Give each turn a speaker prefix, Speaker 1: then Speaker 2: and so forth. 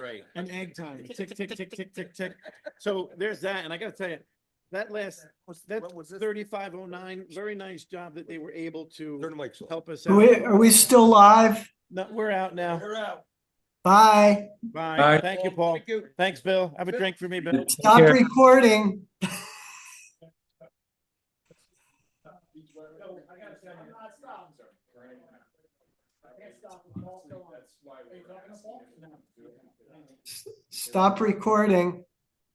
Speaker 1: right.
Speaker 2: and egg time, tick, tick, tick, tick, tick, tick. So there's that, and I gotta tell you, that last, that
Speaker 1: What was this?
Speaker 2: thirty-five oh nine, very nice job that they were able
Speaker 1: Turn
Speaker 2: to
Speaker 1: the mics off.
Speaker 2: help us
Speaker 3: Are we,
Speaker 2: out.
Speaker 3: are we still live?
Speaker 2: No, we're out now.
Speaker 1: They're out.
Speaker 3: Bye.
Speaker 2: Bye.
Speaker 4: Bye.
Speaker 2: Thank you, Paul.
Speaker 1: Thank you.
Speaker 2: Thanks, Bill. Have a drink for me, Bill.
Speaker 3: Stop
Speaker 4: care.
Speaker 3: recording. S- Stop recording.